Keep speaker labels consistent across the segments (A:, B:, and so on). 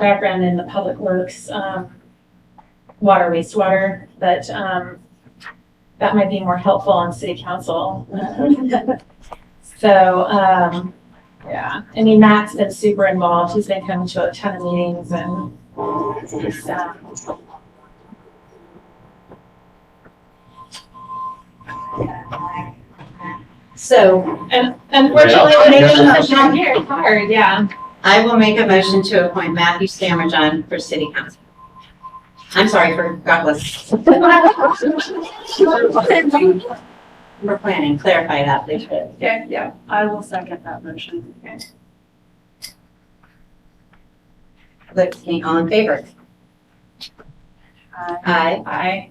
A: background in the public works, um, water, wastewater, but, um, that might be more helpful on city council. So, um, yeah, I mean, Matt's been super involved. He's been coming to a ton of meetings and it's, uh,
B: So
A: and unfortunately,
C: Yeah.
A: when it comes to down here, it's hard, yeah.
B: I will make a motion to appoint Matthew Stammerjohn for city council. I'm sorry for Douglas. For planning, clarify that, please.
D: Okay, yeah, I will second that motion.
B: Look, any all in favor?
D: Uh,
B: Aye.
A: I,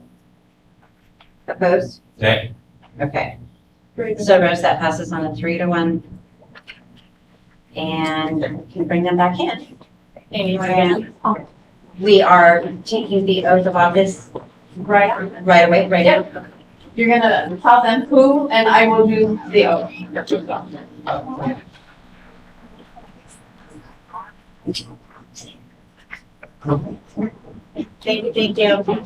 B: Opposed?
C: Nay.
B: Okay,
D: great.
B: so Rose, that passes on a three to one. And we can bring them back in.
A: anyway,
B: We are taking the oath of office
D: Right,
B: right away, right now.
D: you're gonna tell them who, and I will do the oath.
B: Thank you, thank you.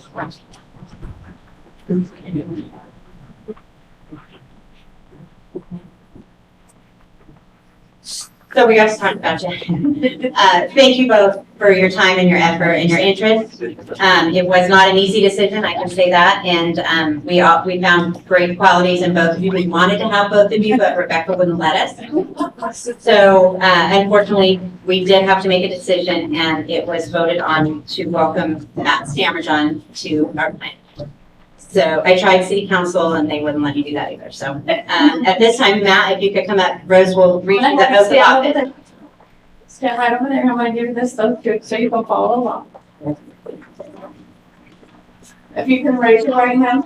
B: So we also talked about you. Uh, Thank you both for your time and your effort and your interest. Um, It was not an easy decision, I can say that, and um, we all, we found great qualities in both of you. We wanted to have both of you, but Rebecca wouldn't let us. So uh, unfortunately, we did have to make a decision, and it was voted on to welcome Matt Stammerjohn to our plan. So I tried city council, and they wouldn't let me do that either. So um, at this time, Matt, if you could come up, Rose will read you the oath of
D: Stand
B: office.
D: over there. Stand right over there, I'm gonna give this oath to, so you can follow along. If you can raise your right hand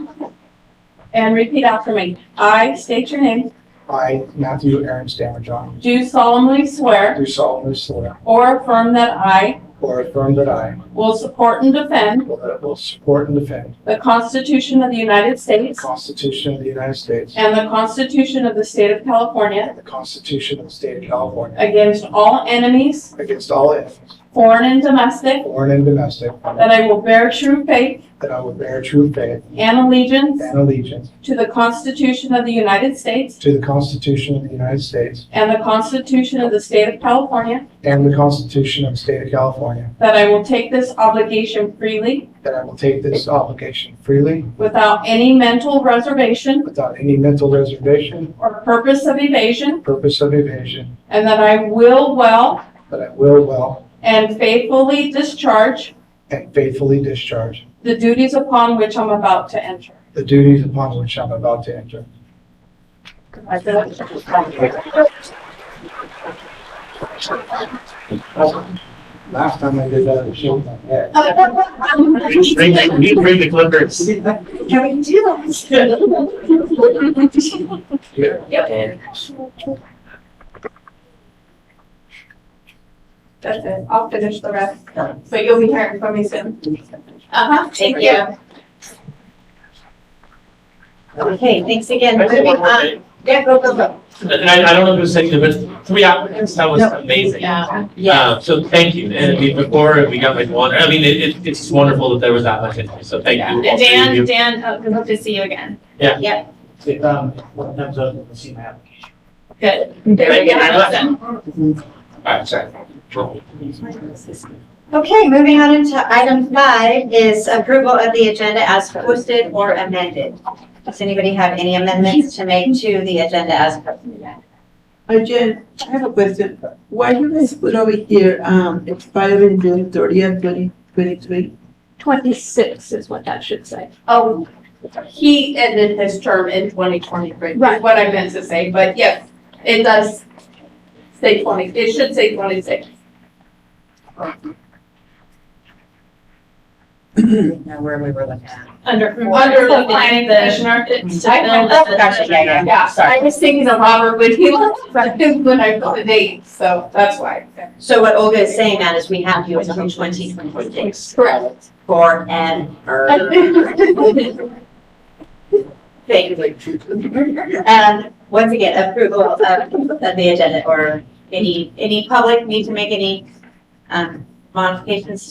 D: and repeat after me. I state your name,
E: I, Matthew Aaron Stammerjohn,
D: do solemnly swear
E: do solemnly swear
D: or affirm that I
E: or affirm that I
D: will support and defend
E: will will support and defend
D: the Constitution of the United
E: the
D: States
E: Constitution of the United States
D: and the Constitution of the State of California
E: and the Constitution of the State of California
D: against all enemies,
E: against all enemies,
D: foreign and domestic,
E: foreign and domestic,
D: that I will bear true faith
E: that I will bear true faith
D: and allegiance
E: and allegiance
D: to the Constitution of the United States
E: to the Constitution of the United States
D: and the Constitution of the State of California,
E: and the Constitution of the State of California,
D: that I will take this obligation freely
E: that I will take this obligation freely
D: without any mental reservation
E: without any mental reservation,
D: or purpose of evasion,
E: purpose of evasion,
D: and that I will well
E: that I will well
D: and faithfully discharge
E: and faithfully discharge
D: the duties upon which I'm about to enter.
E: the duties upon which I'm about to enter. Last time I did that, it showed my head.
C: Bring the, you bring the clippers.
D: That's it. I'll finish the rest, but you'll be hearing from me soon. Uh-huh.
B: Thank you. Okay, thanks again.
C: Can I say
B: Moving
C: one more
B: on.
C: thing?
B: Yeah, go, go, go.
C: And I, I don't know if it was taken, but three applicants, that was amazing.
A: yeah.
B: Yeah.
C: Uh, So thank you, and I mean, before we got like one, I mean, it, it- it's just wonderful that there was that much interest, so thank you. all
A: And
C: three of
A: Dan,
C: you.
A: Dan, hope hope to see you again.
F: If, um, what comes up, we'll see my application.
A: Good. There we
C: Thank you
A: go.
C: very much.
A: Awesome.
C: All right, sorry.
B: Okay, moving on into item five is approval of the agenda as posted or amended. Does anybody have any amendments to make to the agenda as posted?
G: Uh, Jen, I have a question. Why do they split over here, um, expiring June thirtieth, twenty twenty-three?
H: Twenty-six is what that should say.
D: Oh, he ended his term in twenty twenty-three, is
H: Right.
D: what I meant to say, but yes, it does say twenty, it should say twenty-six.
B: Now, where we were looking at.
A: Under,
D: Under
A: under the planning commissioner. it's to fill
B: Oh,
A: the-
B: gotcha, yeah, yeah.
D: Yeah, I was thinking of Robert when he left, when I put the date, so that's why.
B: So what Olga is saying, Matt, is we have you until twenty twenty-six.
D: Correct.
B: Forever. Thank you. Um, once again, approval of, of the agenda or any, any public need to make any, um, modifications